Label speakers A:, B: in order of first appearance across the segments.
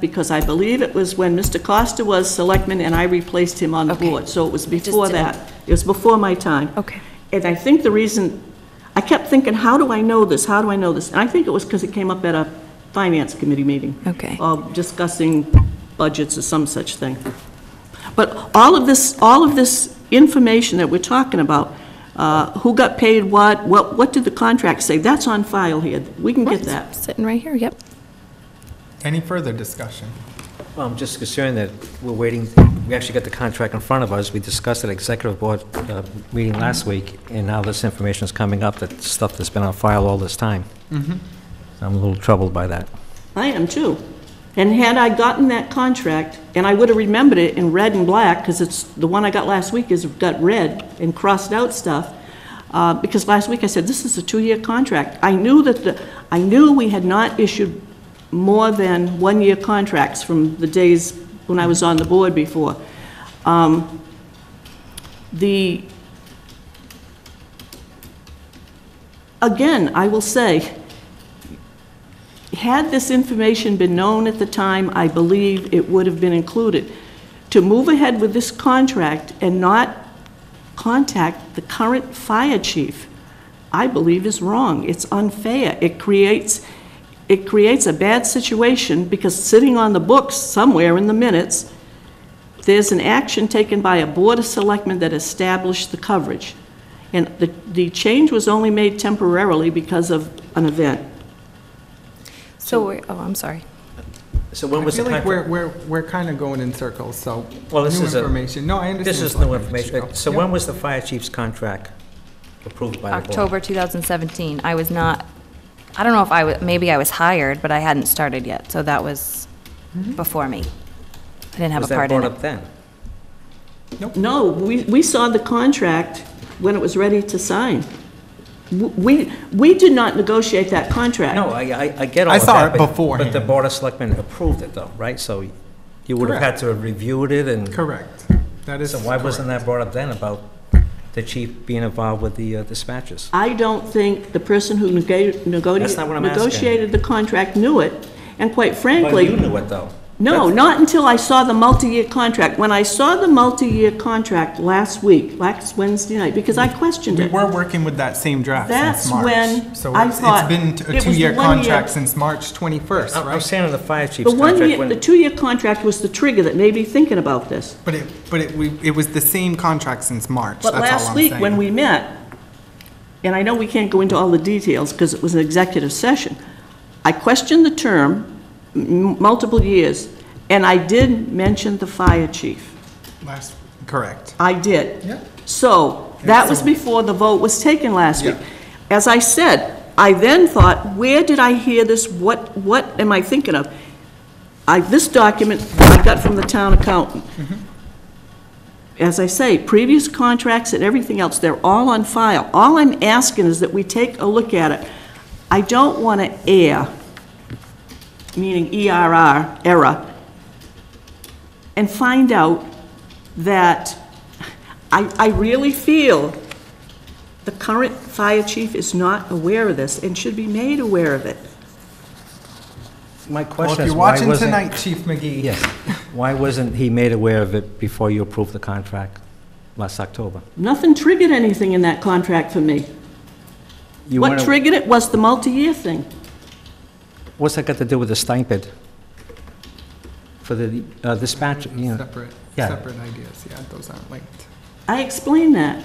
A: because I believe it was when Mr. Costa was selectman and I replaced him on the
B: Okay.
A: board. So it was
B: just
A: before
B: didn't-
A: that. It was before my time.
B: Okay.
A: And I think the reason, I kept thinking, how do I know this? How do I know this? And I think it was because it came up at a finance committee meeting.
B: Okay.
A: Or discussing budgets or some such thing. But all of this, all of this information that we're talking about, uh, who got paid what, what, what did the contract say? That's on file here. We can get that.
B: Sitting right here, yep.
C: Any further discussion?
D: Well, I'm Um, just concerned that we're waiting, we actually got the contract in front of us, we discussed it at executive board uh, meeting last week, and now this information is coming up, that stuff that's been on file all this time.
C: Mm-hmm.
D: I'm a little troubled by that.
A: I am too. And had I gotten that contract, and I would have remembered it in red and black, because it's, the one I got last week is got red and crossed out stuff, uh, because last week I said, this is a two-year contract. I knew that the, I knew we had not issued more than one-year contracts from the days when I was on the board before. Um, The, again, I will say, had this information been known at the time, I believe it would have been included. To move ahead with this contract and not contact the current fire chief, I believe is wrong. It's unfair. It creates, it creates a bad situation because sitting on the books somewhere in the minutes, there's an action taken by a board of selectmen that established the coverage. And the, the change was only made temporarily because of an event.
B: So, we're- oh, I'm sorry.
D: So when
C: I
D: was the
C: feel like
D: contract?
C: we're, we're, we're kind of going in circles, so.
D: Well, this
C: new
D: is a-
C: information. No, I understand.
D: This is
C: Selectman
D: new information.
C: Pacheco.
D: So
C: Yep.
D: when was the fire chief's contract approved by the board?
B: October 2017. I was not, I don't know if I, wa- maybe I was hired, but I hadn't started yet, so that was before me. I didn't have a
D: Mm-hmm. Was that
B: part in
D: brought
B: it.
D: up then?
A: No, we, we saw the contract when it was ready to sign. W- We, we did not negotiate that contract.
D: No, I, I- I get all
C: I
D: of that.
C: saw it
D: but- But the
C: beforehand.
D: board of selectmen approved it though, right? So you would have had
C: Correct.
D: to have reviewed it and.
C: Correct. That is.
D: So why wasn't that brought up then about the chief being involved with the uh, dispatches?
A: I don't think the person who nega-
D: That's not what
A: negoti-
D: I'm asking.
A: negotiated the contract knew it, and quite
D: Well,
A: frankly...
D: you knew it though.
A: No,
D: That's-
A: not until I saw the multi-year contract. When I saw the multi-year contract last week, last Wednesday night, because I questioned
C: We
A: it.
C: were working with that same draft
A: That's
C: since March.
A: when
C: So
A: I
C: it's-
A: thought
C: It's
A: it
C: been a
A: was the
C: two-year
A: one year-
C: contract since March 21st,
D: I'm I'm
C: right?
D: saying on the fire chief's
A: The
D: contract.
A: one year,
D: when-
A: the two-year contract was the trigger that made me thinking about this.
C: But it, but it, we, it was the same contract since March.
A: But
C: That's all
A: last
C: I'm
A: week, when
C: saying.
A: we met, and I know we can't go into all the details because it was an executive session, I questioned the term m- multiple years, and I did mention the fire chief.
C: Last, correct.
A: I did.
C: Yep.
A: So, that was
C: so-
A: before the vote was taken last week.
C: Yeah.
A: As I said, I then thought, where did I hear this? What, what am I thinking of? I, this document I got from the town accountant. As I say, previous contracts and everything else, they're all on file. All I'm asking is that we take a look at it. I don't want to err, meaning ERR, error, and find out that I, I really feel the current fire chief is not aware of this and should be made aware of it.
D: My
C: Well, if
D: question is,
C: you're
D: why
C: watching
D: wasn't?
C: tonight, Chief McGee.
D: Yes. Why wasn't he made aware of it before you approved the contract last October?
A: Nothing triggered anything in that contract for me.
D: You
A: What
D: wanna-
A: triggered it was the multi-year thing.
D: What's that got to do with the stipend? For the uh, dispatch, you know,
C: Separate,
D: Yeah.
C: separate ideas, yeah, those aren't linked.
A: I explained that.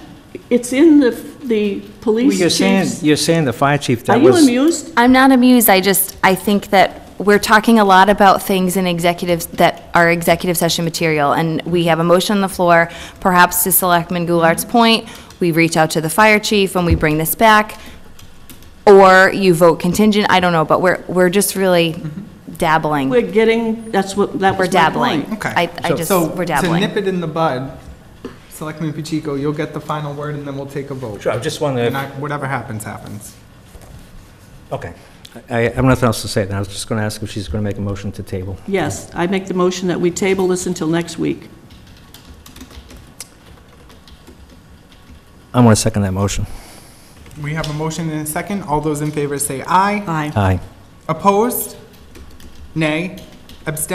A: It's in the, the
D: Well,
A: police
D: you're saying,
A: chief's...
D: you're saying the fire chief
A: Are
D: that
A: you
D: was.
A: amused?
B: I'm not amused, I just, I think that we're talking a lot about things in executives that are executive session material, and we have a motion on the floor, perhaps to Selectman Goulart's point, we reach out to the fire chief and we bring this back, or you vote contingent, I don't know, but we're, we're just really
C: Mm-hmm.
B: dabbling.
A: We're getting, that's what, that
B: We're
A: was my
B: dabbling.
A: point.
C: Okay.
B: I, I
D: So-
B: just,
C: So,
B: we're
C: to nip
B: dabbling.
C: it in the bud, Selectman Pacheco, you'll get the final word and then we'll take a vote.
D: Sure, I just wondering.
C: And I- whatever happens, happens.
D: Okay. I I have nothing else to say. then. I was just going to ask if she's going to make a motion to table.
A: Yes, I make the motion that we table this until next week.
D: I'm going to second that motion.
C: We have a motion and a second. All those in favor say aye.
A: Aye.
D: Aye.
C: Opposed? Nay. Abstentions?